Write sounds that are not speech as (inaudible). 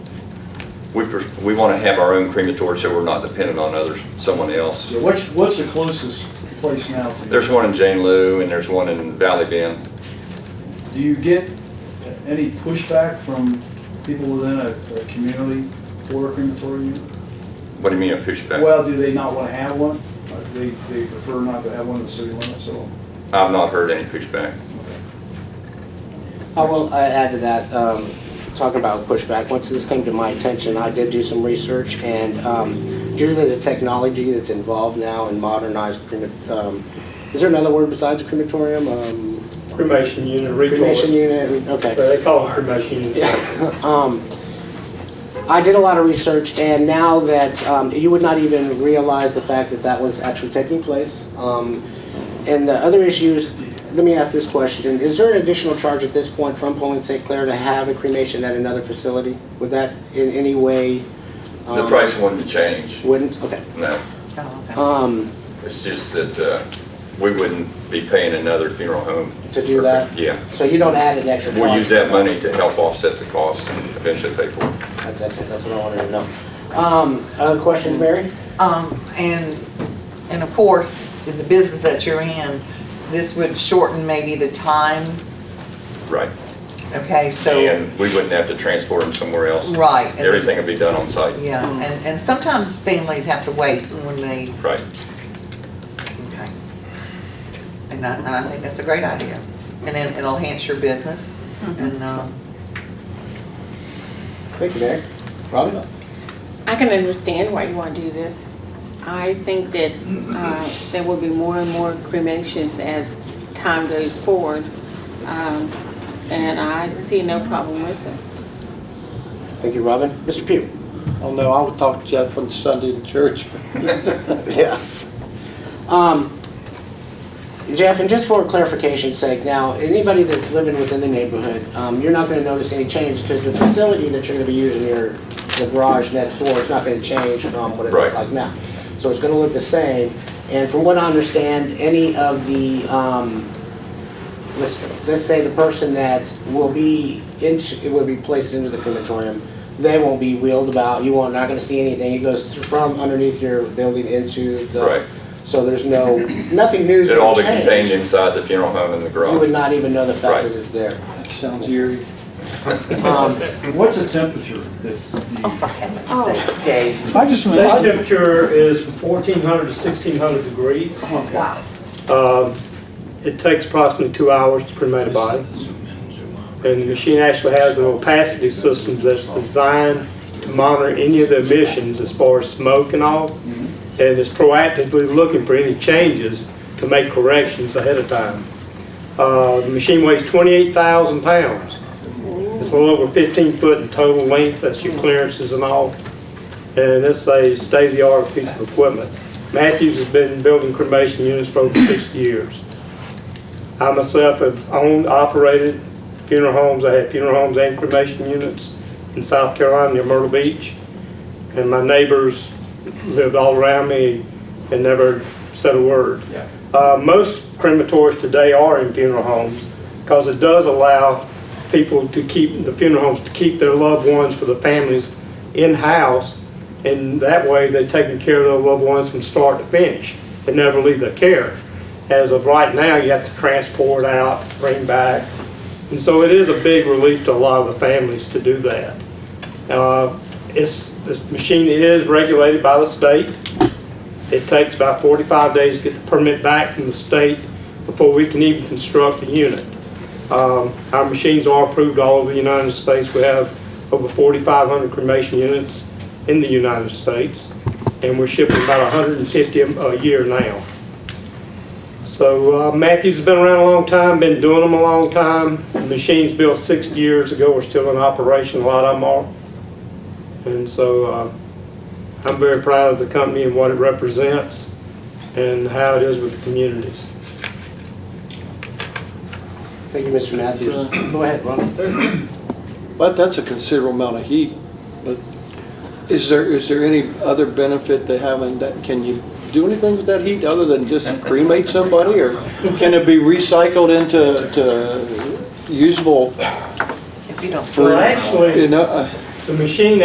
We, pers- we want to have our own crematory so we're not dependent on others, someone else. Yeah, what's, what's the closest place now to you? There's one in Jane Lou and there's one in Valley Bend. Do you get any pushback from people within a, a community for a crematory unit? What do you mean a pushback? Well, do they not want to have one? Uh, They, they prefer not to have one in the city limits, so. I've not heard any pushback. I will I add to that, um, talking about pushback, once this came to my attention, I did do some research, and um, due to the technology that's involved now in modernized, crema- um, is there another word besides crematorium? Um, Cremation unit, Cremation recall. unit, okay. They call it cremation unit. Um, I did a lot of research, and now that, um, you would not even realize the fact that that was actually taking place. Um, and the other issues, let me ask this question, is there an additional charge at this point from Pauline St. Clair to have a cremation at another facility? Would that in any way? The um, price wouldn't change, Wouldn't, okay. no. Um, It's just that uh, we wouldn't be paying another funeral home. To do that? Yeah. so you don't add an extra charge? We'll use that money to help offset the cost and eventually pay for it. That's, that's, that's what I wanted to know. Um, other questions, Mary? Um, and, and of course, in the business that you're in, this would shorten maybe the time, Right. okay, so, And we wouldn't have to transport them somewhere else. Right, and then- um, Everything would be done on site. yeah, and, and sometimes families have to wait when they, Right. okay. And I, and I think that's a great idea, and then it'll enhance your business, and, um, Thank you, Mary. Robin? I can understand why you want to do this. I think that uh, there will be more and more cremations as time goes forward, um, and I see no problem with it. Thank you, Robin. Mr. Pugh? Oh, no, I would talk to Jeff on Sunday in church. (laughs) Yeah. Um, Jeff, and just for clarification's sake, now, anybody that's living within the neighborhood, um, you're not gonna notice any change, because the facility that you're gonna be using, your, the garage next door, is not gonna change from what it Right. looks like now. So it's gonna look the same, and from what I understand, any of the, um, let's, let's say the person that will be in, will be placed into the crematorium, they won't be wheeled about, you won't, not gonna see anything, it goes from underneath your building into the. Right. So there's no, nothing new is It'd all gonna be change. contained inside the funeral home in the You would garage. not even know the fact Right. that it's there. Sounds eerie. Um, What's the temperature that oh, you? for heaven's sakes, Dave. I just. State temperature is from 1,400 to 1,600 degrees. Wow. Um, It takes approximately two hours to cremate a body. And the machine actually has an opacity system that's designed to monitor any of the emissions as far as smoke and all. And is proactively looking for any changes to make corrections ahead of time. Uh, The machine weighs 28,000 pounds. It's a little over 15 foot in total length, that's your clearances and all. And it's a state-of-the-art piece of equipment. Matthews has been building cremation units for over 60 years. I myself have owned, operated funeral homes. I had funeral homes and cremation units in South Carolina near Myrtle Beach. And my neighbors lived all around me and never said a word. Uh, Most crematories today are in funeral homes because it does allow people to keep, the funeral homes, to keep their loved ones for the families in-house. And that way, they're taking care of their loved ones from start to finish. They never leave their care. As of right now, you have to transport out, bring back. And so it is a big relief to a lot of the families to do that. Uh, It's, this machine is regulated by the state. It takes about 45 days to get the permit back from the state before we can even construct the unit. Um, Our machines are approved all over the United States. We have over 4,500 cremation units in the United States, and we're shipping about 150 a a year now. So uh, Matthews has been around a long time, been doing them a long time. The Machines built 60 years ago, are still in operation, a lot of them are. And so uh, I'm very proud of the company and what it represents and how it is with the communities. Thank you, Mr. Matthews. Uh, Go ahead, Robin. But that's a considerable amount of heat, but is there, is there any other benefit to having that? Can you do anything with that heat other than just cremate somebody? Or can it be recycled into to usable, If you don't Well, actually, you know? uh, the machine